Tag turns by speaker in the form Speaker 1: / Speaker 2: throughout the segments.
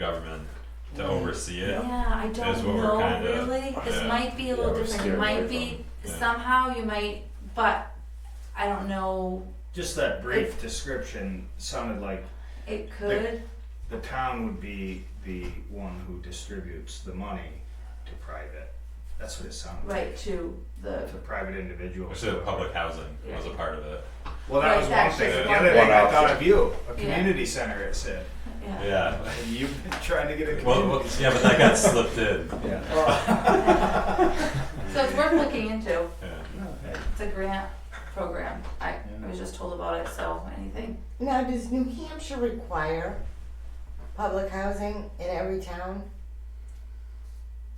Speaker 1: government to
Speaker 2: Right.
Speaker 1: oversee it.
Speaker 3: Yeah, I
Speaker 1: Is
Speaker 3: don't
Speaker 1: what we're
Speaker 3: know
Speaker 1: kinda-
Speaker 3: really. This
Speaker 1: yeah.
Speaker 3: might be a
Speaker 2: Yeah,
Speaker 3: little
Speaker 2: we're
Speaker 3: different. It
Speaker 2: steering away
Speaker 3: might be
Speaker 1: from- yeah.
Speaker 3: somehow you might, but I don't know.
Speaker 4: Just that brief description sounded like
Speaker 3: It could.
Speaker 4: the town would be the one who distributes the money to private. That's what it sounded like.
Speaker 3: Right to the
Speaker 4: To private individuals.
Speaker 1: Which the public housing was a part of it.
Speaker 4: Well, that
Speaker 3: Right,
Speaker 4: was one
Speaker 3: that's
Speaker 4: thing.
Speaker 1: just
Speaker 4: The
Speaker 3: one
Speaker 4: other
Speaker 3: thing.
Speaker 4: thing I
Speaker 2: One
Speaker 4: thought
Speaker 2: option.
Speaker 4: of you, a
Speaker 3: Yeah.
Speaker 4: community center, it said.
Speaker 3: yeah.
Speaker 1: Yeah.
Speaker 4: And you've been trying to get
Speaker 1: Well,
Speaker 4: a
Speaker 1: well,
Speaker 4: community.
Speaker 1: yeah, but that got slipped in.
Speaker 2: Yeah.
Speaker 4: Well,
Speaker 3: So it's worth looking into.
Speaker 1: Yeah.
Speaker 4: no,
Speaker 5: Oh,
Speaker 4: hey.
Speaker 3: It's a grant program. I, I was just told about it. So anything.
Speaker 6: Now, does New Hampshire require public housing in every town?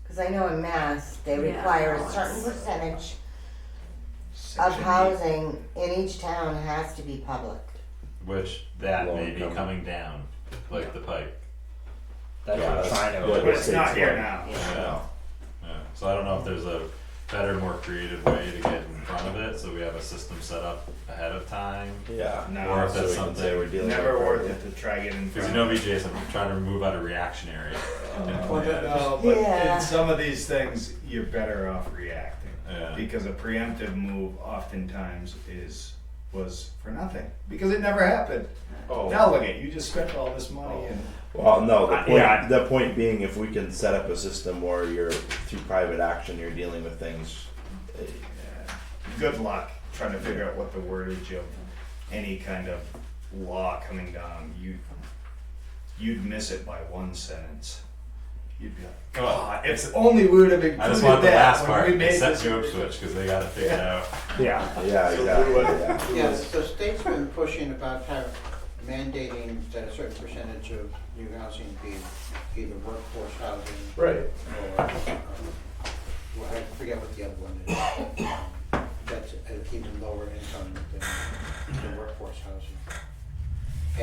Speaker 6: Because I know in Mass, they
Speaker 3: Yeah,
Speaker 6: require
Speaker 3: no,
Speaker 6: a certain
Speaker 3: it's-
Speaker 6: percentage of
Speaker 4: Section eight.
Speaker 6: housing in each town has to be public.
Speaker 1: Which that
Speaker 2: Long
Speaker 1: may be
Speaker 2: coming.
Speaker 1: coming down, like the pike.
Speaker 2: That's
Speaker 4: Yeah,
Speaker 2: what
Speaker 4: that's-
Speaker 2: China
Speaker 4: But
Speaker 2: what
Speaker 4: it's not
Speaker 2: states
Speaker 4: here
Speaker 2: want.
Speaker 4: now.
Speaker 1: Yeah. Yeah. So I don't know if there's a better, more creative way to get in front of it, so we have a system set up ahead of time.
Speaker 2: Yeah.
Speaker 4: No.
Speaker 1: Or if that's
Speaker 2: So we can say
Speaker 1: something,
Speaker 2: we're dealing
Speaker 4: Never
Speaker 2: with
Speaker 4: worth
Speaker 2: private.
Speaker 4: it to try getting.
Speaker 1: because you know me, Jason, I'm trying to move out of reactionary. and
Speaker 4: Uh, Well, uh,
Speaker 1: plan.
Speaker 4: that- no, but
Speaker 6: Yeah.
Speaker 4: in some of these things, you're better off reacting.
Speaker 1: Yeah.
Speaker 4: Because a preemptive move oftentimes is, was for nothing, because it never happened.
Speaker 1: Oh.
Speaker 4: Now look at, you just spent all this money and.
Speaker 2: Well, no, the
Speaker 4: Uh,
Speaker 2: point,
Speaker 4: yeah.
Speaker 2: the point being, if we can set up a system where you're, through private action, you're dealing with things. eh,
Speaker 4: Yeah. Good luck trying to figure out what the wordage of any kind of law coming down, you, you'd miss it by one sentence. You'd be like, God, if only we would have included that.
Speaker 1: Oh. I just want the last
Speaker 4: when
Speaker 1: part,
Speaker 4: we made
Speaker 1: except
Speaker 4: this
Speaker 1: Job Switch, because they got it figured out.
Speaker 4: Yeah.
Speaker 2: Yeah, exactly, yeah.
Speaker 5: Yeah, so states have been pushing about how mandating that a certain percentage of new housing be either workforce housing
Speaker 2: Right.
Speaker 5: or, um, well, I forget what the other one is. That's an even lower income than the workforce housing.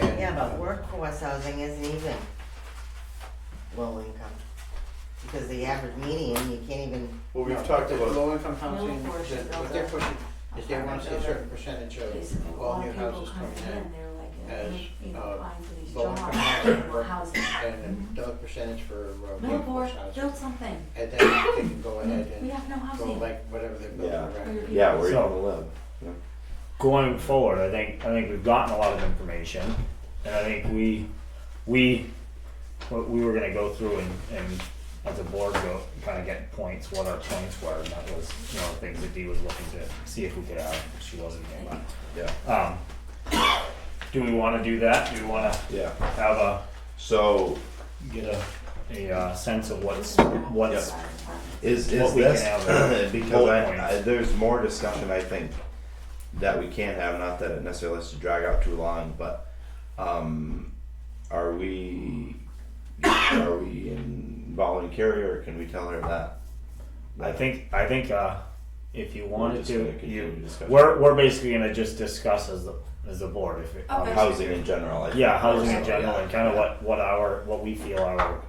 Speaker 5: And,
Speaker 6: Yeah,
Speaker 5: uh,
Speaker 6: but workforce housing isn't even low income. Because the average median, you can't even,
Speaker 2: Well,
Speaker 5: no, Low income housing,
Speaker 3: Low portion
Speaker 5: that- what
Speaker 3: of
Speaker 5: they're
Speaker 3: the-
Speaker 5: pushing is they want to see a
Speaker 3: of the-
Speaker 5: certain percentage
Speaker 3: Basically,
Speaker 5: of
Speaker 3: a
Speaker 5: all
Speaker 3: lot
Speaker 5: new
Speaker 3: of people
Speaker 5: houses
Speaker 3: coming
Speaker 5: coming
Speaker 3: in, they're like,
Speaker 5: as,
Speaker 3: you know,
Speaker 5: uh,
Speaker 3: applying for these
Speaker 5: low income
Speaker 3: jobs,
Speaker 5: housing,
Speaker 3: more housing.
Speaker 5: and another percentage for uh, workforce
Speaker 3: Millboard,
Speaker 5: housing.
Speaker 3: build something.
Speaker 5: And then they can go ahead
Speaker 3: We
Speaker 5: and
Speaker 3: have no
Speaker 5: go
Speaker 3: housing.
Speaker 5: like whatever they're building
Speaker 2: Yeah.
Speaker 5: around.
Speaker 2: Yeah, where you're
Speaker 7: So-
Speaker 2: on the limb.
Speaker 7: going forward, I think I think we've gotten a lot of information, and I think we we what we were gonna go through and, and as a board go kind of get points, what our points were, and that was you know things that Dee was looking to see if we could have. She wasn't there,
Speaker 2: Yeah,
Speaker 7: but um, do we want to do that? Do we want to
Speaker 2: yeah.
Speaker 7: have a
Speaker 2: So
Speaker 7: get a a uh, sense of what's what's
Speaker 2: is
Speaker 7: What
Speaker 2: is
Speaker 7: we can
Speaker 2: this
Speaker 7: have are
Speaker 2: because
Speaker 7: bullet
Speaker 2: I, I,
Speaker 7: points.
Speaker 2: there's more discussion I think that we can have. Not that it necessarily has to drag out too long, but um, are we are we involving Carrie or can we tell her that?
Speaker 7: I think I think uh, if you
Speaker 2: We're
Speaker 7: wanted
Speaker 2: just gonna
Speaker 7: to,
Speaker 2: continue
Speaker 7: you
Speaker 2: discussion.
Speaker 7: we're we're basically gonna just discuss as the as the board if it,
Speaker 3: Okay.
Speaker 2: housing in general. I think.
Speaker 7: Yeah, housing in
Speaker 2: So,
Speaker 7: general
Speaker 2: yeah.
Speaker 7: and kind of what, what our, what we feel our,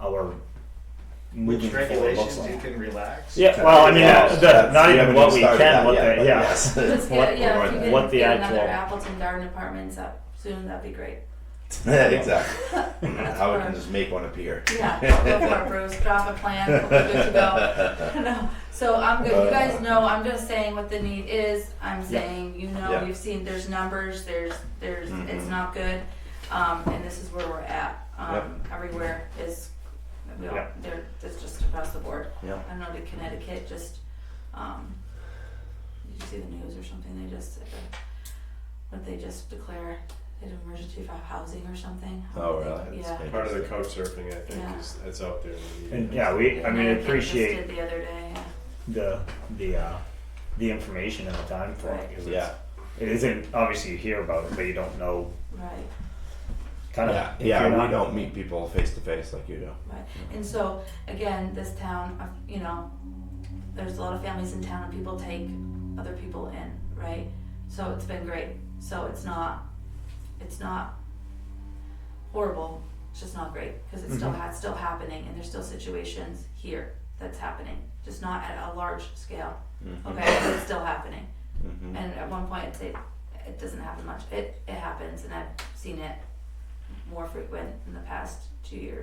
Speaker 7: our moving
Speaker 4: Which
Speaker 7: forward looks
Speaker 4: regulations you
Speaker 7: like.
Speaker 4: can relax.
Speaker 7: Yeah, well, I mean,
Speaker 2: Yes,
Speaker 7: the,
Speaker 2: that's-
Speaker 7: not
Speaker 2: we
Speaker 7: even
Speaker 2: haven't
Speaker 7: what we
Speaker 2: started
Speaker 7: can,
Speaker 2: that
Speaker 7: what
Speaker 2: yet,
Speaker 7: the,
Speaker 2: but
Speaker 7: yeah.
Speaker 2: yes.
Speaker 3: Let's
Speaker 7: What-
Speaker 3: get, yeah, if you
Speaker 7: what
Speaker 3: could
Speaker 7: the
Speaker 3: get another
Speaker 7: actual-
Speaker 3: Appleton Garden Apartments up soon, that'd be great.
Speaker 2: Yeah, exactly. How we can just make one appear.
Speaker 3: Yeah, go for it, Bruce. Drop a plan. We'll be good to go. no. So I'm good. You
Speaker 2: Uh,
Speaker 3: guys know. I'm just saying what the need is. I'm saying you know.
Speaker 2: Yeah.
Speaker 3: You've seen. There's numbers. There's there's. It's
Speaker 2: Mhm.
Speaker 3: not good. Um, and this is where we're at. Um, Everywhere is. We all,
Speaker 7: Yeah.
Speaker 3: There. It's just across the board.
Speaker 2: Yeah.
Speaker 3: I know to Connecticut just. Um, did you see the news or something? They just. Uh, what they just declare an emergency for housing or something.
Speaker 2: Oh, really?
Speaker 3: Yeah.
Speaker 8: Part of the couch surfing, I think,
Speaker 3: Yeah.
Speaker 8: is that's out there. in the
Speaker 7: And
Speaker 8: media.
Speaker 7: yeah, we, I mean,
Speaker 3: Connecticut just
Speaker 7: appreciate
Speaker 3: did the other day. Yeah.
Speaker 7: the, the, uh, the information and the time for it. 'cause
Speaker 2: Yeah.
Speaker 7: it's- It isn't, obviously you hear about it, but you don't know,
Speaker 3: Right,
Speaker 7: kind
Speaker 2: Yeah,
Speaker 7: of.
Speaker 2: yeah. We don't meet people face to face like you do.
Speaker 3: right. And so, again, this town, uh, you know, there's a lot of families in town and people take other people in, right? So it's been great. So it's not, it's not horrible. It's just not great because it's still,
Speaker 7: Mhm.
Speaker 3: it's still happening and there's still situations here that's happening, just not at a large scale. Okay, but it's still happening.
Speaker 2: Mm-hmm.
Speaker 3: And at one point, it, it doesn't happen much. It, it happens and I've seen it more frequent in the past two years.